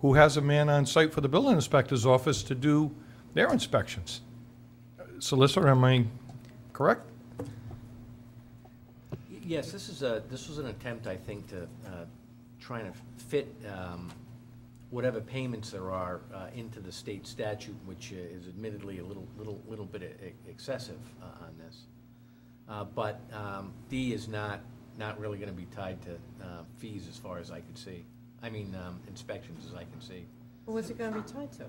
who has a man on site for the building inspector's office to do their inspections. Solicitor, am I correct? Y- Yes, this is a, this was an attempt, I think, to uh, try and fit um, whatever payments there are uh, into the state statute, which uh, is admittedly a little, little, little bit e- excessive uh, on this. Uh, But um, D is not, not really going to be tied to uh, fees as far as I could see. I mean, um, inspections as I can see. What's it gonna be tied to?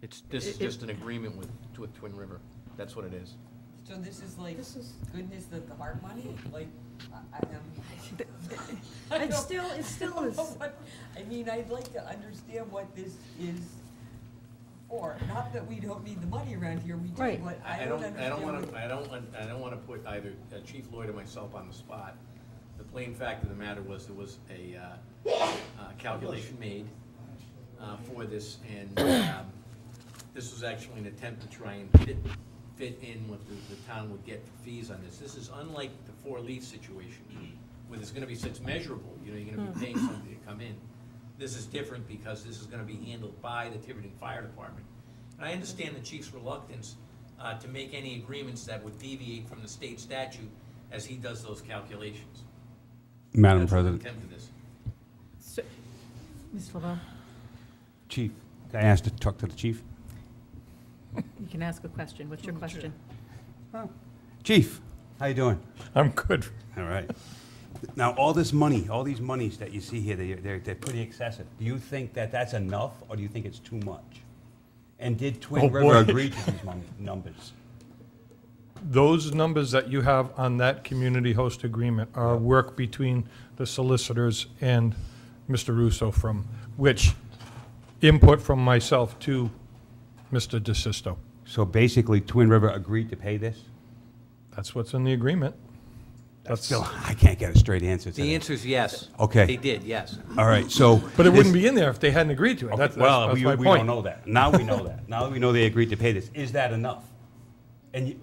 It's, this is It- it- just an agreement with, with Twin River. That's what it is. So this is like This is- goodness that the heart money, like, I, I am. I don't- It's still, it's I still don't is, know what- I mean, I'd like to understand what this is for, not that we don't need the money around here, we do, Right. but I don't understand. I don't wanna, what- I don't want, I don't wanna put either uh, Chief Lloyd or myself on the spot. The plain fact of the matter was, there was a, uh, uh, calculation made, uh, for this, and, um, this was actually an attempt to try and fit, fit in what the, the town would get for fees on this. This is unlike the four-leaf situation, where there's gonna be such measurable, you know, you're gonna be paying something to come in. This is different because this is gonna be handled by the Tiverton Fire Department. And I understand the chief's reluctance uh, to make any agreements that would deviate from the state statute as he does those calculations. Madam That's what the intent President. of this. So- Mr. LeBeau, Chief, can I ask to talk to the chief? you can ask a question. What's your question? Chief, how you doing? I'm good. All right. Now, all this money, all these monies that you see here, they're, they're, they're pretty excessive. Do you think that that's enough, or do you think it's too much? And did Oh, Twin boy. River agree to these mon- numbers? Those numbers that you have on that community host agreement are work between the solicitors and Mr. Russo from, which input from myself to Mr. DeSisto. So basically, Twin River agreed to pay this? That's what's in the agreement. That's- Still, I can't get a straight answer to The that. answer is yes. Okay. They did, yes. All right, so. But it this- wouldn't be in there if they hadn't agreed to it. Okay, That's, that's well, that's we, my we point. don't know that. Now we know that. Now that we know they agreed to pay this. Is that enough? And you,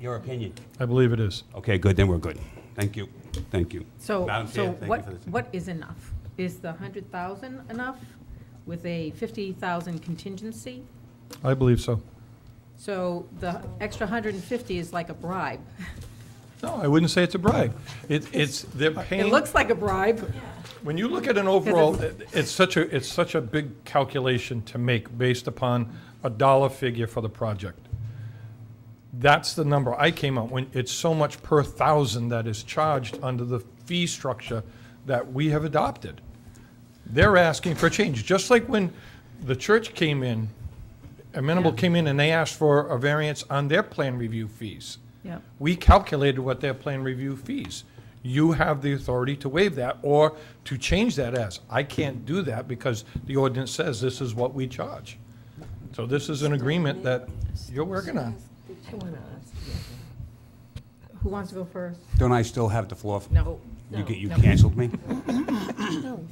your opinion? I believe it is. Okay, good. Then we're good. Thank you. Thank you. So, Madam Chair, so thank you what, for this. what is enough? Is the hundred thousand enough with a fifty thousand contingency? I believe so. So the extra hundred and fifty is like a bribe. No, I wouldn't say it's a bribe. It, it's, they're It paying, looks like a bribe. when you look at an overall, it's such a, it's such a big calculation to make based upon a dollar figure for the project. That's the number I came up, when it's so much per thousand that is charged under the fee structure that we have adopted. They're asking for a change, just like when the church came in, Amenable came in and they asked for a variance on their plan review fees. Yep. We calculated what their plan review fees. You have the authority to waive that or to change that as. I can't do that because the ordinance says this is what we charge. So this is an agreement that you're working on. Who wants to go first? Don't I still have the floor? No. You, ca- you No. canceled me?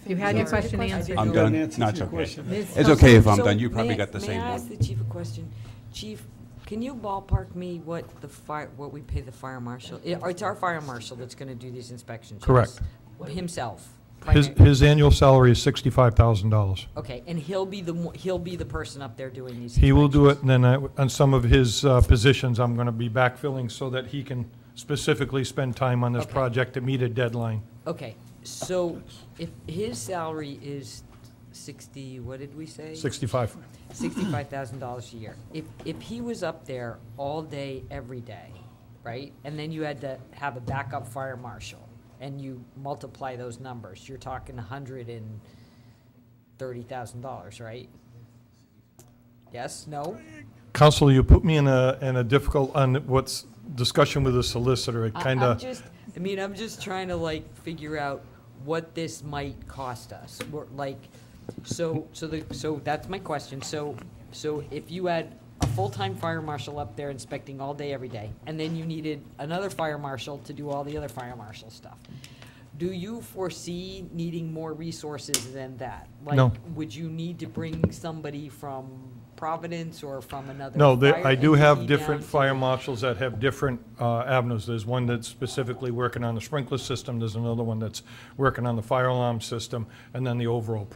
You had your question answered. I'm Go done. ahead, Nancy, No, to it's your okay. question. Ms. It's okay if I'm So done. You may probably I- got the same May I one. ask the chief a question? Chief, can you ballpark me what the fire, what we pay the fire marshal? I- It's our fire marshal that's gonna do these inspections. yes? Correct. Himself. His, primary- his annual salary is sixty-five thousand dollars. Okay, and he'll be the, mo- he'll be the person up there doing these inspections? He will do it, and then I, on some of his uh, positions, I'm gonna be backfilling so that he can specifically spend time on this Okay. project to meet a deadline. Okay, so if his salary is sixty, what did we say? Sixty-five. sixty-five thousand dollars a year. If, if he was up there all day, every day, right, and then you had to have a backup fire marshal, and you multiply those numbers, you're talking a hundred and thirty thousand dollars, right? Yes, no? Counselor, you put me in a, in a difficult, on what's discussion with the solicitor, it I- kinda. I'm just, I mean, I'm just trying to like figure out what this might cost us. We're like, so, so the, so that's my question. So, so if you had a full-time fire marshal up there inspecting all day, every day, and then you needed another fire marshal to do all the other fire marshal stuff, do you foresee needing more resources than that? No. Like, Would you need to bring somebody from Providence or from another? No, there- fire I do have entity down different to- fire marshals that have different uh, avenues. There's one that's specifically working on the sprinkler system, there's another one that's working on the fire alarm system, and then the overall